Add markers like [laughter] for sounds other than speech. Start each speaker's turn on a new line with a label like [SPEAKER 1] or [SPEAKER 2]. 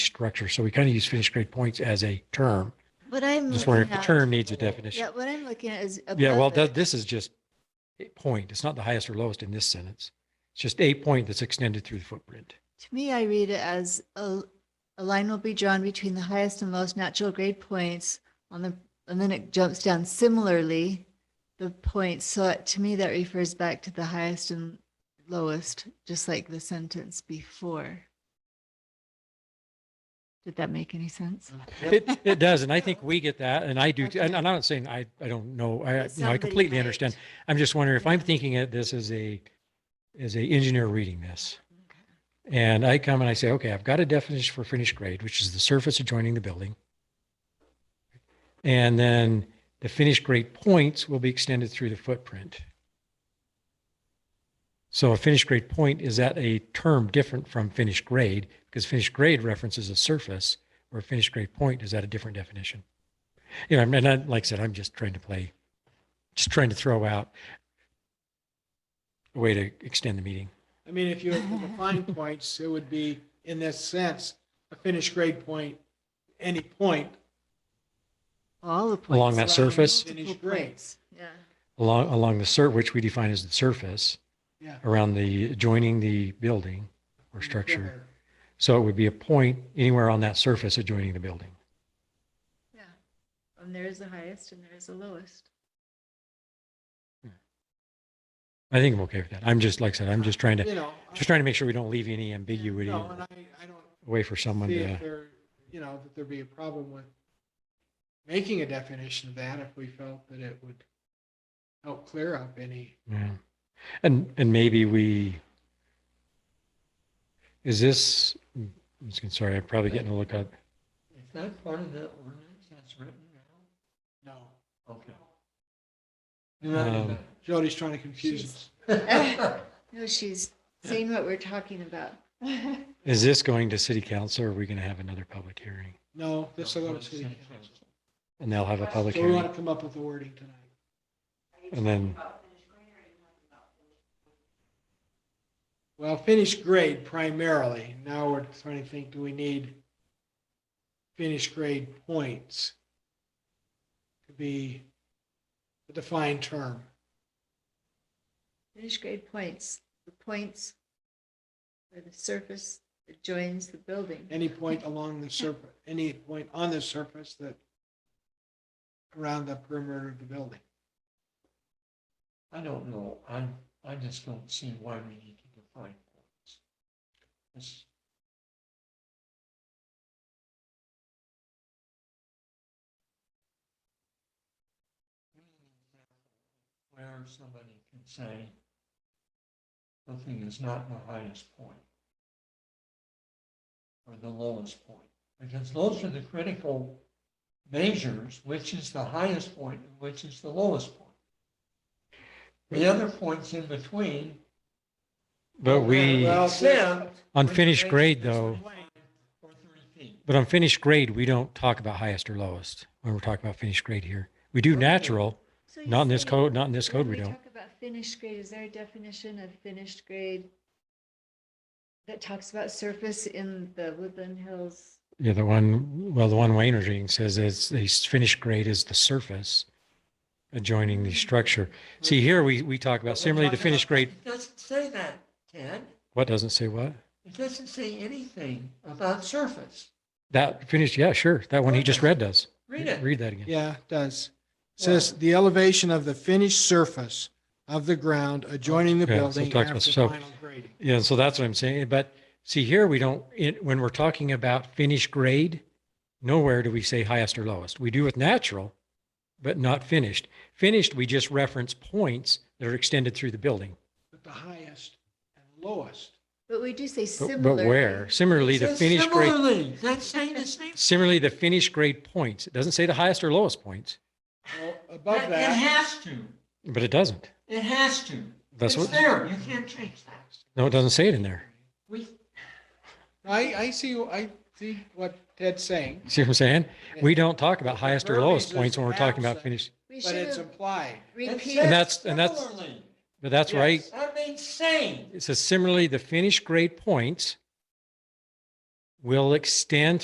[SPEAKER 1] corrector. So we kind of use finished grade points as a term.
[SPEAKER 2] What I'm.
[SPEAKER 1] Just wondering
[SPEAKER 2] looking
[SPEAKER 1] if the
[SPEAKER 2] at-
[SPEAKER 1] term needs a definition.
[SPEAKER 2] Mm-hmm. Yeah, what I'm looking at is.
[SPEAKER 1] Yeah, well,
[SPEAKER 2] above
[SPEAKER 1] that,
[SPEAKER 2] it.
[SPEAKER 1] this is just a point. It's not the highest or lowest in this sentence. It's just a point that's extended through the footprint.
[SPEAKER 2] To me, I read it as a, a line will be drawn between the highest and lowest natural grade points on the, and then it jumps down similarly, the points. So it- to me, that refers back to the highest and lowest, just like the sentence before. Did that make any sense?
[SPEAKER 1] It, it does.
[SPEAKER 2] [laughs]
[SPEAKER 1] And I think we get that. And I do, too. and I'm not saying I, I don't know. I,
[SPEAKER 2] But
[SPEAKER 1] you know, I
[SPEAKER 2] somebody
[SPEAKER 1] completely
[SPEAKER 2] might.
[SPEAKER 1] understand. I'm just wondering if I'm
[SPEAKER 2] Yeah.
[SPEAKER 1] thinking of this as a, as a engineer reading this. And I come and I say, okay, I've got a definition for finished grade, which is the surface adjoining the building. And then the finished grade points will be extended through the footprint. So a finished grade point, is that a term different from finished grade? Because finished grade references a surface, or a finished grade point, is that a different definition? You know, and I, like I said, I'm just trying to play, just trying to throw out a way to extend the meeting.
[SPEAKER 3] I mean, if you were to define points, it would be, in this sense, a finished grade point, any point.
[SPEAKER 2] All the points.
[SPEAKER 1] Along that surface?
[SPEAKER 2] multiple
[SPEAKER 3] Finished grade.
[SPEAKER 2] points. Yeah.
[SPEAKER 1] along along the sur which we define as the surface
[SPEAKER 3] Yeah.
[SPEAKER 1] around the adjoining the building or structure. So it would be a point anywhere on that surface adjoining the building.
[SPEAKER 2] Yeah. And there is the highest and there is the lowest.
[SPEAKER 1] I think I'm okay with that. I'm just like I said, I'm just trying to
[SPEAKER 3] You know. I-
[SPEAKER 1] just trying to make sure we don't leave any ambiguity
[SPEAKER 3] No,
[SPEAKER 1] or
[SPEAKER 3] and I, I don't
[SPEAKER 1] way for someone
[SPEAKER 3] see if
[SPEAKER 1] to.
[SPEAKER 3] there, you know, that there'd be a problem with making a definition of that if we felt that it would help clear up any.
[SPEAKER 1] Yeah. And and maybe we. Is this? I'm just gonna- sorry, I'm probably getting a look up.
[SPEAKER 4] Is that part of the ordinance that's written now?
[SPEAKER 3] No,
[SPEAKER 4] Okay. You're not in
[SPEAKER 1] Um,
[SPEAKER 4] that-
[SPEAKER 3] Jody's trying to confuse us.
[SPEAKER 2] No, she's saying what we're talking about. [laughs]
[SPEAKER 1] Is this going to city council? Or are we going to have another public hearing?
[SPEAKER 3] No, this will go to
[SPEAKER 4] That's
[SPEAKER 3] city
[SPEAKER 4] what it
[SPEAKER 3] council.
[SPEAKER 4] says.
[SPEAKER 1] And they'll have a public
[SPEAKER 3] So we
[SPEAKER 1] hearing.
[SPEAKER 3] want to come up with the wording tonight.
[SPEAKER 1] And then,
[SPEAKER 3] Well, finished grade primarily. Now we're trying to think, do we need finished grade points to be a defined term?
[SPEAKER 2] Finished grade points, the points where the surface that joins the building.
[SPEAKER 3] Any point along the surface, any point on the surface that around the perimeter of the building.
[SPEAKER 4] I don't know, I, I just don't see why we need to define points. It's- Where somebody can say something is not the highest point. Or the lowest point, because those are the critical measures, which is the highest point, and which is the lowest point. The other points in between.
[SPEAKER 1] but we.
[SPEAKER 3] Well,
[SPEAKER 4] Except.
[SPEAKER 1] On finished grade, though,
[SPEAKER 4] Or three feet.
[SPEAKER 1] but on finished grade, we don't talk about highest or lowest when we're talking about finished grade here. We do natural,
[SPEAKER 2] So
[SPEAKER 1] not in this
[SPEAKER 2] you're
[SPEAKER 1] code, not in this
[SPEAKER 2] saying
[SPEAKER 1] code,
[SPEAKER 2] when
[SPEAKER 1] we don't.
[SPEAKER 2] Talk about finished grade, is there a definition of finished grade that talks about surface in the Woodland Hills?
[SPEAKER 1] Yeah, the one, well, the one Wayne was reading says is the finished grade is the surface adjoining the structure. See, here we, we talk about similarly the finished grade,
[SPEAKER 4] It doesn't say that, Ted.
[SPEAKER 1] what doesn't say what?
[SPEAKER 4] It doesn't say anything about surface.
[SPEAKER 1] That finished, yeah, sure. That one he just read does.
[SPEAKER 4] Read it.
[SPEAKER 1] Read that again.
[SPEAKER 3] Yeah, it does. It Says the elevation of the finished surface of the ground adjoining the
[SPEAKER 1] Okay, so it
[SPEAKER 3] building
[SPEAKER 1] talks about-
[SPEAKER 3] after
[SPEAKER 1] so-
[SPEAKER 3] final grading.
[SPEAKER 1] Yeah, so that's what I'm saying. But see, here we don't, it- when we're talking about finished grade, nowhere do we say highest or lowest. We do with natural, but not finished. Finished, we just reference points that are extended through the building.
[SPEAKER 3] But the highest and lowest.
[SPEAKER 2] But we do say similar.
[SPEAKER 1] But- But where? Similarly,
[SPEAKER 4] It
[SPEAKER 1] the
[SPEAKER 4] says
[SPEAKER 1] finished grade,
[SPEAKER 4] Similarly, that's saying the same.
[SPEAKER 1] similarly, the finished grade points. It doesn't say the highest or lowest points,
[SPEAKER 3] Well,
[SPEAKER 4] It
[SPEAKER 3] above
[SPEAKER 4] it
[SPEAKER 3] that.
[SPEAKER 4] has to.
[SPEAKER 1] but it doesn't.
[SPEAKER 4] It has to.
[SPEAKER 1] That's
[SPEAKER 4] It's
[SPEAKER 1] what-
[SPEAKER 4] there. You can't change that.
[SPEAKER 1] No, it doesn't say it in there.
[SPEAKER 4] We,
[SPEAKER 3] I, I see, I see what Ted's saying,
[SPEAKER 1] See what I'm saying? We don't talk about highest or lowest
[SPEAKER 3] Verbiage is
[SPEAKER 1] points when we're talking about
[SPEAKER 3] absent.
[SPEAKER 1] finished.
[SPEAKER 2] We
[SPEAKER 3] but
[SPEAKER 2] should
[SPEAKER 3] it's
[SPEAKER 2] have
[SPEAKER 3] implied.
[SPEAKER 4] it
[SPEAKER 2] repeated.
[SPEAKER 1] And
[SPEAKER 4] says
[SPEAKER 1] that's- and that's-
[SPEAKER 4] similarly.
[SPEAKER 1] But that's right.
[SPEAKER 4] That means same.
[SPEAKER 1] It says similarly, the finished grade points will extend